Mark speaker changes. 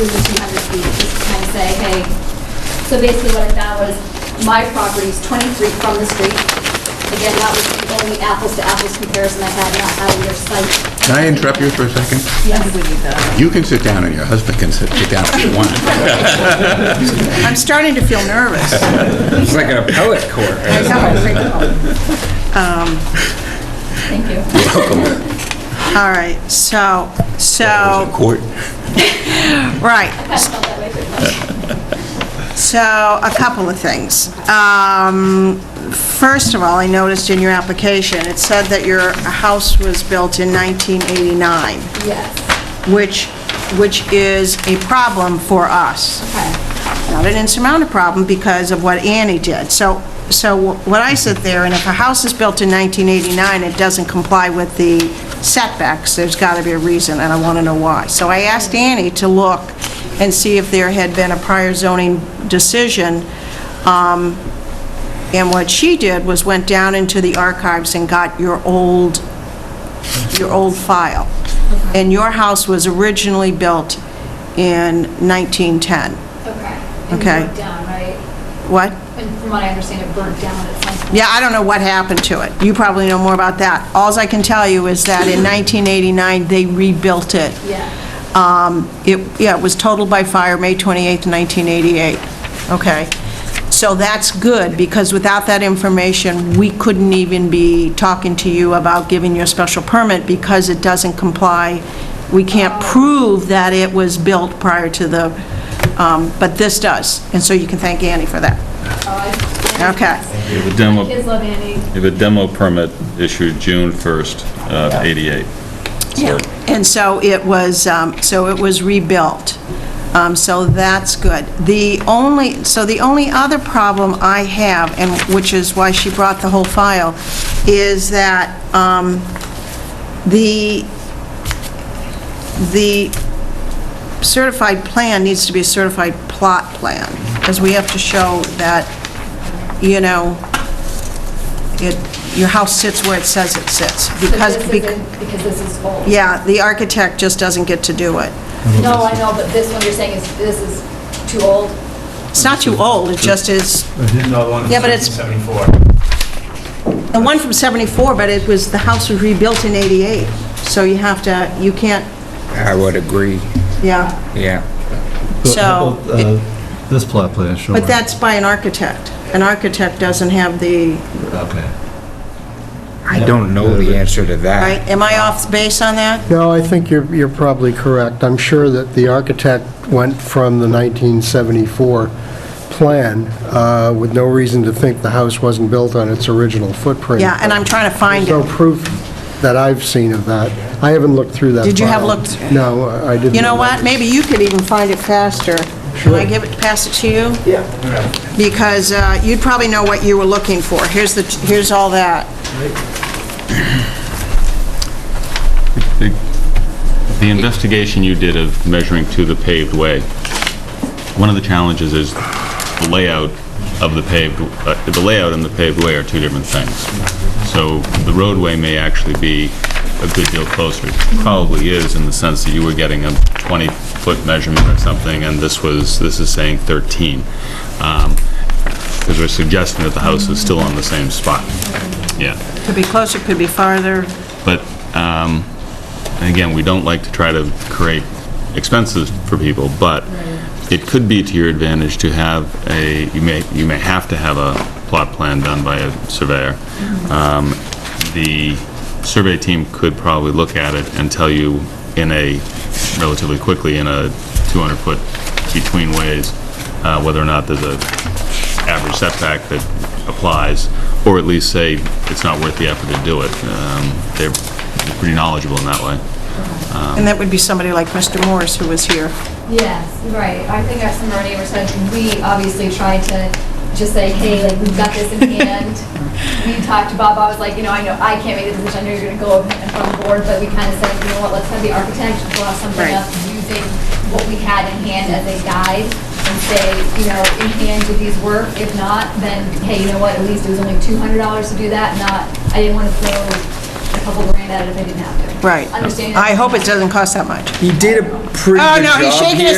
Speaker 1: within 200 feet, just to kind of say, hey, so basically what I found was, my property's 20 feet from the street. Again, that was the only apples-to-apples comparison I had, not out of your site.
Speaker 2: Can I interrupt you for a second?
Speaker 3: think we need that.
Speaker 2: You can sit down and your husband can sit sit down if you want.
Speaker 3: I'm starting to feel nervous.
Speaker 4: It's like a poet court.
Speaker 3: I know, I think-
Speaker 1: Thank you.
Speaker 3: All right, so, so,
Speaker 2: Court.
Speaker 3: right,
Speaker 1: I felt that way pretty much.
Speaker 3: So, a couple of things. Um, First of all, I noticed in your application, it said that your house was built in 1989,
Speaker 1: Yes,
Speaker 3: which, which is a problem for us.
Speaker 1: okay.
Speaker 3: Not an insurmountable problem because of what Annie did. So, so what I said there, and if a house is built in 1989, it doesn't comply with the setbacks, there's got to be a reason, and I want to know why. So I asked Annie to look and see if there had been a prior zoning decision um, and what she did was went down into the archives and got your old, your old file. And your house was originally built in 1910.
Speaker 1: Okay. And
Speaker 3: Okay.
Speaker 1: burnt down, right?
Speaker 3: What?
Speaker 1: And from what I understand, it burnt down at some point.
Speaker 3: Yeah, I don't know what happened to it. You probably know more about that. Alls I can tell you is that in 1989, they rebuilt it.
Speaker 1: Yeah.
Speaker 3: Um, It, yeah, it was totaled by fire May 28th, 1988. Okay. So that's good, because without that information, we couldn't even be talking to you about giving you a special permit, because it doesn't comply. We can't prove that it was built prior to the, um, but this does. And so you can thank Annie for that. Okay.
Speaker 5: We have a demo,
Speaker 1: Oh, Kids
Speaker 5: we
Speaker 1: love Annie.
Speaker 5: have a demo permit issued June 1st, uh, 88.
Speaker 3: Yeah, and so it was, um, so it was rebuilt. Um, So that's good. The only, so the only other problem I have, and which is why she brought the whole file, is that um, the, the certified plan needs to be a certified plot plan, because we have to show that, you know, it, your house sits where it says it sits,
Speaker 1: Because
Speaker 3: because...
Speaker 1: this
Speaker 3: bec-
Speaker 1: isn't, because this is old.
Speaker 3: yeah, the architect just doesn't get to do it.
Speaker 1: No, I know, but this one you're saying is, this is too old.
Speaker 3: It's not too old, it just is,
Speaker 6: No, the one
Speaker 3: Yeah, but
Speaker 6: in
Speaker 3: it's-
Speaker 6: 1974.
Speaker 3: the one from 74, but it was, the house was rebuilt in 88, so you have to, you can't,
Speaker 4: I would agree,
Speaker 3: yeah,
Speaker 4: yeah.
Speaker 3: So,
Speaker 7: How about, uh, This plot plan showing.
Speaker 3: but that's by an architect. An architect doesn't have the,
Speaker 7: Okay.
Speaker 4: I don't know the answer to that.
Speaker 3: right, am I off base on that?
Speaker 8: No, I think you're, you're probably correct. I'm sure that the architect went from the 1974 plan uh, with no reason to think the house wasn't built on its original footprint.
Speaker 3: Yeah, and I'm trying to find
Speaker 8: There's no
Speaker 3: it.
Speaker 8: proof that I've seen of that. I haven't looked through that
Speaker 3: Did you have
Speaker 8: file.
Speaker 3: looked-
Speaker 8: No, I didn't.
Speaker 3: You know what, maybe you could even find it faster. Can I give it, pass it to you?
Speaker 6: Yeah.
Speaker 3: Because uh, you'd probably know what you were looking for. Here's the, here's all that.
Speaker 5: The the investigation you did of measuring to the paved way, one of the challenges is the layout of the paved, uh, the layout and the paved way are two different things. So the roadway may actually be a good deal closer. It Probably is in the sense that you were getting a 20-foot measurement or something, and this was, this is saying 13. Because we're suggesting that the house is still on the same spot. Yeah.
Speaker 3: Could be closer, could be farther.
Speaker 5: But, um, again, we don't like to try to create expenses for people, but it could be to your advantage to have a, you may, you may have to have a plot plan done by a surveyor. Um, The survey team could probably look at it and tell you in a, relatively quickly, in a 200-foot between ways, uh, whether or not there's a average setback that applies, or at least say it's not worth the effort to do it. Um, They're they're pretty knowledgeable in that way.
Speaker 3: And that would be somebody like Mr. Morris, who was here.
Speaker 1: Yes, right. I think our summer neighbors said, we obviously tried to just say, hey, like, we've got this in hand. We talked to Bob, I was like, you know, I know, I can't make the decision, I know you're gonna go in front of the board, but we kind of said, you know what, let's have the architect draw something
Speaker 3: Right.
Speaker 1: up using what we had in hand as a guide and say, you know, in hand, do these work? If not, then, hey, you know what, at least it was only two hundred dollars to do that, not, I didn't want to throw a couple grand at it if I didn't have to.
Speaker 3: Right.
Speaker 1: Understanding.
Speaker 3: I hope it doesn't cost that much.
Speaker 4: He did a pretty
Speaker 3: Oh,
Speaker 4: good
Speaker 3: no, he's
Speaker 4: job
Speaker 3: shaking his
Speaker 4: here.